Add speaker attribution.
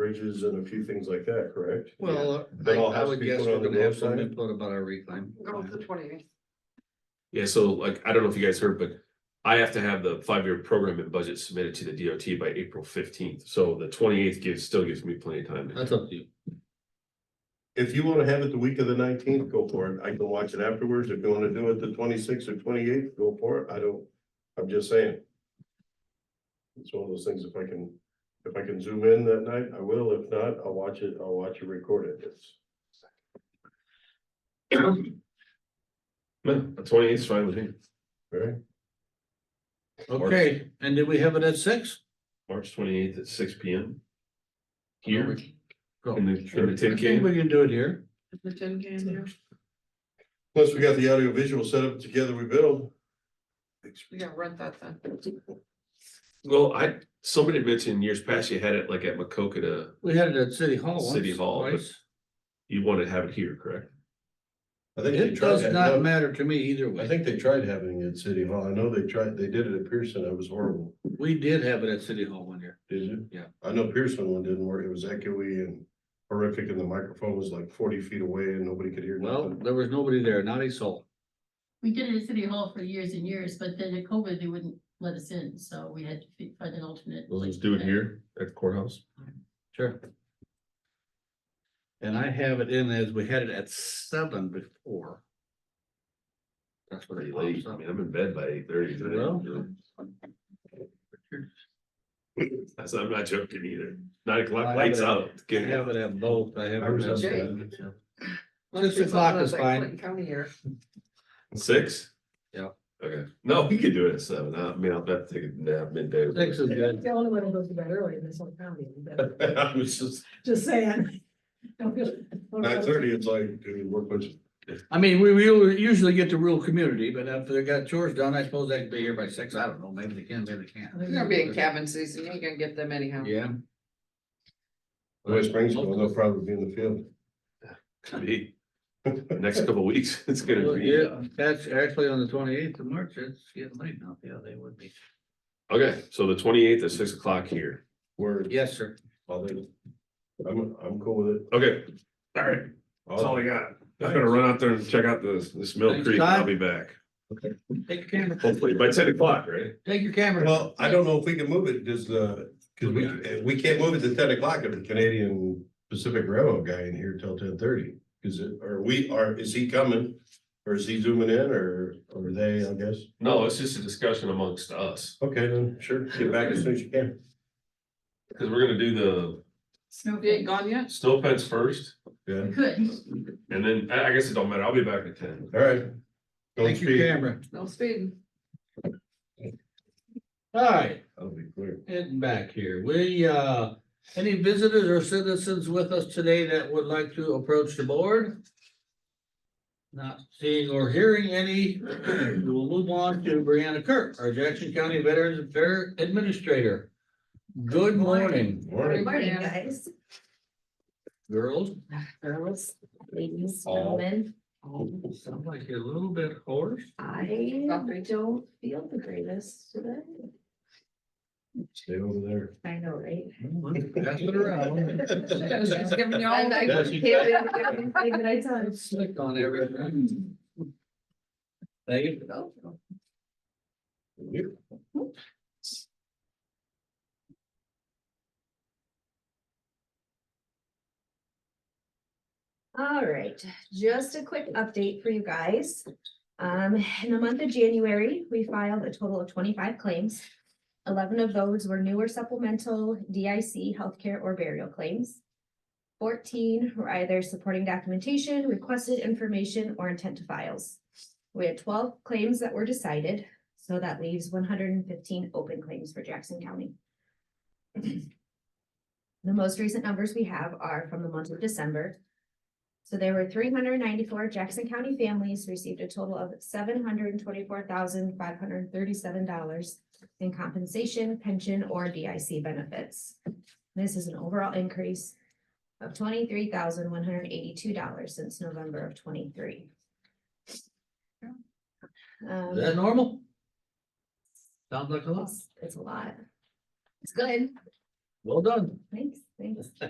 Speaker 1: bridges and a few things like that, correct?
Speaker 2: Well, I,
Speaker 1: That all
Speaker 2: I
Speaker 1: has
Speaker 2: would
Speaker 1: to be
Speaker 2: guess
Speaker 1: put
Speaker 2: we're
Speaker 1: on the
Speaker 2: gonna have some
Speaker 1: website?
Speaker 2: input about our reclaim.
Speaker 3: Go to the twenty.
Speaker 4: Yeah, so like, I don't know if you guys heard, but I have to have the five-year program and budget submitted to the DOT by April fifteenth, so the twenty-eighth gives, still gives me plenty of time.
Speaker 2: That's up to you.
Speaker 1: If you wanna have it the week of the nineteenth, go for it. I can watch it afterwards. If you wanna do it the twenty-sixth or twenty-eighth, go for it. I don't, I'm just saying. It's one of those things, if I can, if I can zoom in that night, I will. If not, I'll watch it, I'll watch it recorded. It's,
Speaker 4: Man, the twenty-eighth is fine with me,
Speaker 1: right?
Speaker 2: Okay, and did we have it at six?
Speaker 4: March twenty-eighth at six P M. Here,
Speaker 2: Go.
Speaker 4: in the, in the
Speaker 2: I
Speaker 4: tin
Speaker 2: think
Speaker 4: can,
Speaker 2: we can do it here.
Speaker 3: The tin can there.
Speaker 1: Plus, we got the audio visual setup together we build.
Speaker 3: We gotta rent that then.
Speaker 4: well, I, somebody mentioned years past, you had it like at Macokota,
Speaker 2: We had it at City Hall once.
Speaker 4: City Hall, but-
Speaker 2: twice.
Speaker 4: you want to have it here, correct?
Speaker 1: I think they
Speaker 2: It
Speaker 1: tried,
Speaker 2: does not
Speaker 1: that-
Speaker 2: matter to me either
Speaker 1: no, I
Speaker 2: way.
Speaker 1: think they tried having it at City Hall. I know they tried, they did it at Pearson. It was horrible.
Speaker 2: We did have it at City Hall one year.
Speaker 1: Did you?
Speaker 2: Yeah.
Speaker 1: I know Pearson one didn't work. It was echoey and horrific and the microphone was like forty feet away and nobody could hear
Speaker 2: Well,
Speaker 1: nothing.
Speaker 2: there was nobody there, not a soul.
Speaker 5: We did it at City Hall for years and years, but then at COVID, they wouldn't let us in, so we had to fi- find an alternate.
Speaker 4: We'll
Speaker 5: place
Speaker 4: just do it
Speaker 5: to
Speaker 4: here at the courthouse.
Speaker 2: Sure. And I have it in as we had it at seven before. That's what
Speaker 4: Pretty
Speaker 2: it
Speaker 4: late,
Speaker 2: pops
Speaker 4: I
Speaker 2: up.
Speaker 4: mean, I'm in bed by eight thirty today.
Speaker 2: Well.
Speaker 4: That's, I'm not joking either, nine
Speaker 2: I
Speaker 4: o'clock,
Speaker 2: have
Speaker 4: lights
Speaker 2: it at-
Speaker 4: out.
Speaker 2: I
Speaker 4: Get it.
Speaker 2: have it at both. I have.
Speaker 1: I was
Speaker 2: it at
Speaker 1: up there.
Speaker 2: seven, so. Six o'clock is fine.
Speaker 3: County here.
Speaker 4: Six?
Speaker 2: Yeah.
Speaker 4: Okay, no, we could do it at seven, I mean, I'll have to take a nap midday.
Speaker 2: Six is good.
Speaker 6: The only one who goes to bed early in this whole county, but
Speaker 4: I was just,
Speaker 6: just saying. Don't feel- don't feel-
Speaker 1: Nine thirty, it's like, dude, work was
Speaker 2: I mean, we, we usually get the rural community, but if they got chores done, I suppose they can be here by six. I don't know. Maybe they can, maybe they can't.
Speaker 3: They're gonna be in cabin season. You ain't gonna get them anyhow.
Speaker 2: Yeah.
Speaker 1: West Springs, well, they'll probably be in the field.
Speaker 4: could be, next couple of weeks, it's gonna
Speaker 2: Well,
Speaker 4: be, uh,
Speaker 2: Yeah, that's actually on the twenty eighth of March. It's getting late now. Yeah, they would be.
Speaker 4: okay, so the twenty-eighth at six o'clock here,
Speaker 1: Word.
Speaker 2: Yes, sir.
Speaker 1: I'll do it. I'm, I'm cool with it.
Speaker 4: okay. All right, that's all I got, I'm gonna run out there and check out this, this Mill
Speaker 2: Thanks,
Speaker 4: Creek, and I'll
Speaker 2: Todd.
Speaker 4: be back,
Speaker 2: Take your camera.
Speaker 4: hopefully by ten o'clock, right?
Speaker 2: Take your camera.
Speaker 1: Well, I don't know if we can move it, does the, cause we, uh, we can't move it to ten o'clock if the Canadian Pacific Railroad guy in here till ten thirty. Is it, or we are, is he coming? Or is he zooming in or, or they, I guess?
Speaker 4: No, it's just a discussion amongst us,
Speaker 1: Okay, then, sure, get back as soon as you can.
Speaker 4: because we're gonna do
Speaker 5: Snow
Speaker 3: You ain't
Speaker 5: Bay.
Speaker 3: gone yet?
Speaker 4: the snow fence first,
Speaker 1: Yeah,
Speaker 5: We Could,
Speaker 4: and then, I, I guess it don't matter, I'll be back at ten.
Speaker 1: all right. Don't
Speaker 2: Take your
Speaker 1: speak.
Speaker 2: camera.
Speaker 3: No speeding.
Speaker 2: All right,
Speaker 1: That'll be clear.
Speaker 2: heading back here. We, uh, any visitors or citizens with us today that would like to approach the board? Not seeing or hearing any, we will move on to Brianna Kirk, our Jackson County Veterans Affairs Administrator. Good morning,
Speaker 1: Morning.
Speaker 5: morning,
Speaker 3: Yeah.
Speaker 5: guys,
Speaker 2: girls.
Speaker 5: girls, ladies,
Speaker 1: All.
Speaker 5: gentlemen,
Speaker 2: Sound like you're a little bit hoarse.
Speaker 5: I
Speaker 3: Coffee.
Speaker 5: don't feel the greatest today.
Speaker 1: Stay over there.
Speaker 5: I know, right?
Speaker 2: Pass it around.
Speaker 3: She's giving you all
Speaker 5: I
Speaker 3: night.
Speaker 2: Yeah,
Speaker 5: can't
Speaker 2: she-
Speaker 5: do everything that I touch.
Speaker 2: Slick on everything. Thank you.
Speaker 1: You-
Speaker 7: All right, just a quick update for you guys. Um, in the month of January, we filed a total of twenty-five claims. Eleven of those were newer supplemental DIC healthcare or burial claims. Fourteen were either supporting documentation, requested information, or intent to files. We had twelve claims that were decided, so that leaves one hundred and fifteen open claims for Jackson County. The most recent numbers we have are from the month of December. So there were three hundred ninety-four Jackson County families received a total of seven hundred twenty-four thousand five hundred thirty-seven dollars in compensation, pension, or DIC benefits. This is an overall increase of twenty-three thousand one hundred eighty-two dollars since November of twenty-three.
Speaker 2: Is that normal? Sounds like a lot.
Speaker 7: It's a lot. It's good.
Speaker 2: Well done.
Speaker 7: Thanks, thanks.